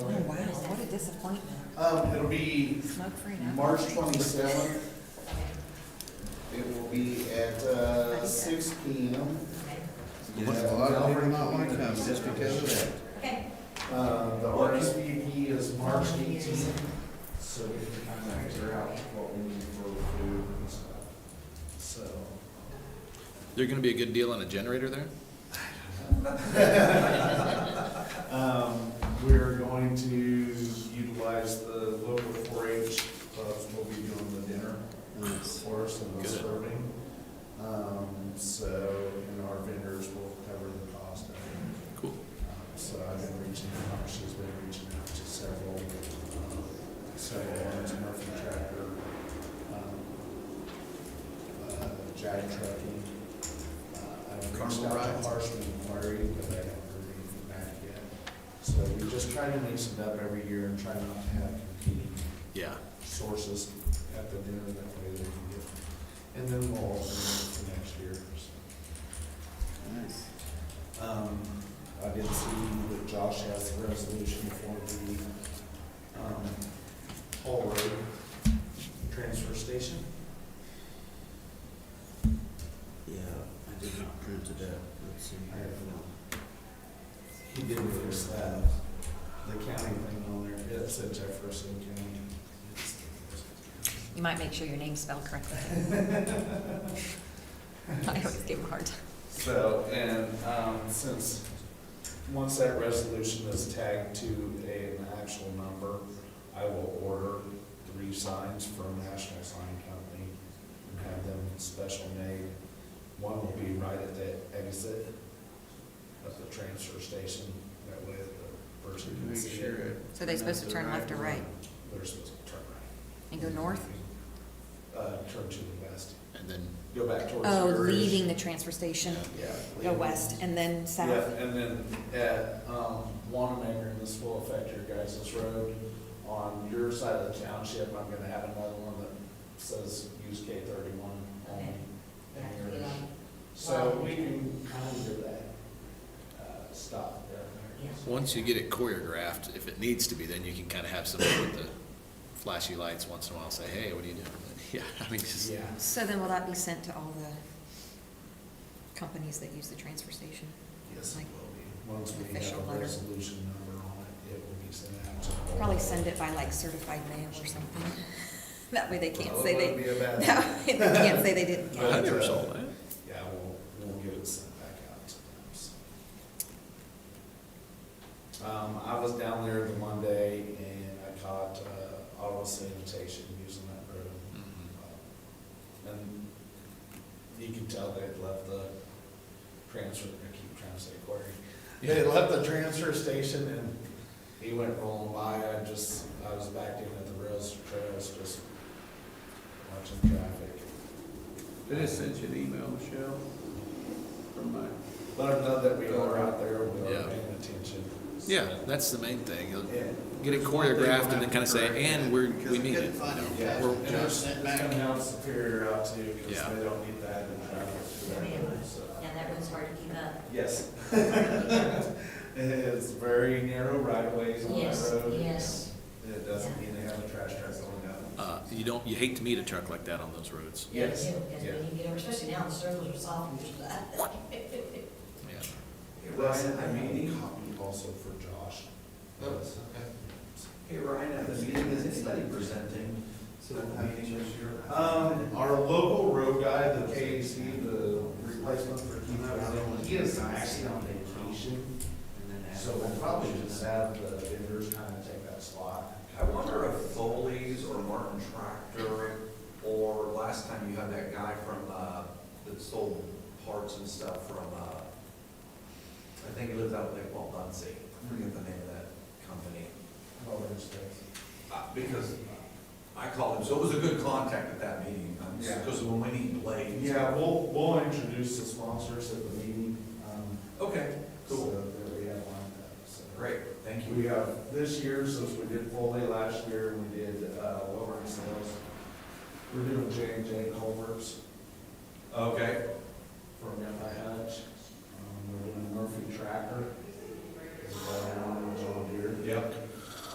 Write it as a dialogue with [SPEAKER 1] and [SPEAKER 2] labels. [SPEAKER 1] Oh, disappointment.
[SPEAKER 2] Um, it'll be
[SPEAKER 1] Smoke-free now.
[SPEAKER 2] March twenty-seventh. It will be at, uh, six P M.
[SPEAKER 3] You have a lot of people not wanna come just because of that.
[SPEAKER 2] Uh, the RSVP is March eighteenth, so we can kind of figure out what we need for food and stuff. So,
[SPEAKER 4] There gonna be a good deal on a generator there?
[SPEAKER 2] um, we're going to utilize the local four-H clubs, we'll be doing the dinner. for us and the
[SPEAKER 4] Good.
[SPEAKER 2] serving. Um, so, and our vendors will cover the cost of it.
[SPEAKER 4] Cool.
[SPEAKER 2] Um, So I've been reaching out, she's been reaching out to several, um, several ones, Murphy Tractor, um, uh, Jag Trucking. Uh, I've reached
[SPEAKER 3] Carnival
[SPEAKER 2] out
[SPEAKER 3] rides?
[SPEAKER 2] to Harshman Inquiry, but I haven't heard anything back yet. So we just try to mix it up every year and try not to have competing
[SPEAKER 4] Yeah.
[SPEAKER 2] sources at the dinner, that way they can get, and then we'll also know for next year.
[SPEAKER 3] Nice.
[SPEAKER 2] Um, I did see that Josh has the resolution for the, um, Hall Road Transfer Station.
[SPEAKER 3] Yeah, I did not print it up, let's see.
[SPEAKER 2] I have no. He did fix that, the county thing on there, it said Jefferson County.
[SPEAKER 1] You might make sure your name's spelled correctly. I always give them a hard time.
[SPEAKER 2] So, and, um, since, once that resolution is tagged to a- an actual number, I will order three signs from National Sign Company and have them special made. One will be right at the exit of the transfer station, that way the person can
[SPEAKER 3] Make
[SPEAKER 2] see
[SPEAKER 3] sure
[SPEAKER 2] it.
[SPEAKER 3] it.
[SPEAKER 1] So they supposed to turn left or right
[SPEAKER 2] They're supposed to turn right.
[SPEAKER 1] and go north?
[SPEAKER 2] Uh, turn to the west,
[SPEAKER 4] And then,
[SPEAKER 2] go back towards.
[SPEAKER 1] Oh,
[SPEAKER 2] the-
[SPEAKER 1] leaving the transfer station,
[SPEAKER 2] Yeah.
[SPEAKER 1] go
[SPEAKER 2] leaving.
[SPEAKER 1] west and then
[SPEAKER 2] Yeah,
[SPEAKER 1] south.
[SPEAKER 2] and then at, um, Wanamaker, and this will affect your guys' road, on your side of the township, I'm gonna add another one that says use K thirty-one only. and yours. So we can kind of do that, uh, stop there.
[SPEAKER 4] once you get it choreographed, if it needs to be, then you can kinda have somebody with the flashy lights once in a while say, hey, what are you doing? Yeah, I mean, just,
[SPEAKER 2] Yeah,
[SPEAKER 1] So then will that be sent to all the companies that use the transfer station?
[SPEAKER 2] yes, it
[SPEAKER 1] Like
[SPEAKER 2] will be. Once we have
[SPEAKER 1] official
[SPEAKER 2] a
[SPEAKER 1] letter.
[SPEAKER 2] resolution number on it, it will be sent out to. all-
[SPEAKER 1] Probably send it by like certified mail or something. That way they can't
[SPEAKER 2] Well,
[SPEAKER 1] say
[SPEAKER 2] it
[SPEAKER 1] they,
[SPEAKER 2] wouldn't Oh, be a bad thing.
[SPEAKER 1] that way they can't say they didn't get it.
[SPEAKER 4] I never saw that.
[SPEAKER 2] Yeah, we'll, we'll get it sent back out to them, so. Um, I was down there the Monday and I caught, uh, auto sanitation using that road.
[SPEAKER 4] Mhm.
[SPEAKER 2] And you can tell they'd left the transfer, I keep trying to say quarry. They left the transfer station and he went rolling by, I just, I was back in at the rails, trails, just watching traffic.
[SPEAKER 5] I just sent you an email, Michelle, from my,
[SPEAKER 2] Let them know that we are out there, we
[SPEAKER 4] Yeah.
[SPEAKER 2] are paying attention.
[SPEAKER 4] Yeah, that's the main thing. You'll
[SPEAKER 2] Yeah.
[SPEAKER 4] Get it choreographed and then kinda say, and we're, we need it. you
[SPEAKER 2] Yeah,
[SPEAKER 4] know.
[SPEAKER 2] and
[SPEAKER 4] We're-
[SPEAKER 2] it's, it's coming out superior out too, because
[SPEAKER 4] Yeah.
[SPEAKER 2] they don't need that in traffic. so.
[SPEAKER 6] Yeah, that one's hard to keep up.
[SPEAKER 2] Yes. It's very narrow right of ways on that
[SPEAKER 6] Yes,
[SPEAKER 2] road.
[SPEAKER 6] yes.
[SPEAKER 2] It doesn't mean they have a trash truck going down.
[SPEAKER 4] Uh, you don't, you hate to meet a truck like that on those roads.
[SPEAKER 2] Yes,
[SPEAKER 6] Yeah, Because
[SPEAKER 2] yeah.
[SPEAKER 6] when you get over, especially now, the circles are soft, and stuff.
[SPEAKER 4] Yeah.
[SPEAKER 2] Ryan, I made a copy also for Josh.
[SPEAKER 7] Hey Ryan, at the meeting, is anybody presenting to the meeting this year?
[SPEAKER 2] Um, our local road guy, the KAC, the replacement for Keith, Allen, he is actually on vacation.
[SPEAKER 7] And then
[SPEAKER 2] So we'll probably just have the vendors kind of take that slot.
[SPEAKER 7] I wonder if Foley's or Martin Tractor, or last time you had that guy from, uh, that sold parts and stuff from, uh, I think he lives out in Lake Waldunsee, I forget the name of that company.
[SPEAKER 2] Well, there's this.
[SPEAKER 7] Uh, because I called him, so it was a good contact at that meeting,
[SPEAKER 2] Yeah.
[SPEAKER 7] because when we need blades.
[SPEAKER 2] Yeah, we'll, we'll introduce the sponsors at the meeting, um,
[SPEAKER 7] Okay,
[SPEAKER 2] so
[SPEAKER 7] cool,
[SPEAKER 2] that we have lined up, so.
[SPEAKER 7] great, thank you.
[SPEAKER 2] We have, this year, since we did Foley last year, we did, uh, Lowering Sales. We're doing J and J Culvers
[SPEAKER 7] Okay.
[SPEAKER 2] from MI Hutch. Um, we're doing Murphy Tracker. Is that on John Deere?
[SPEAKER 7] Yep.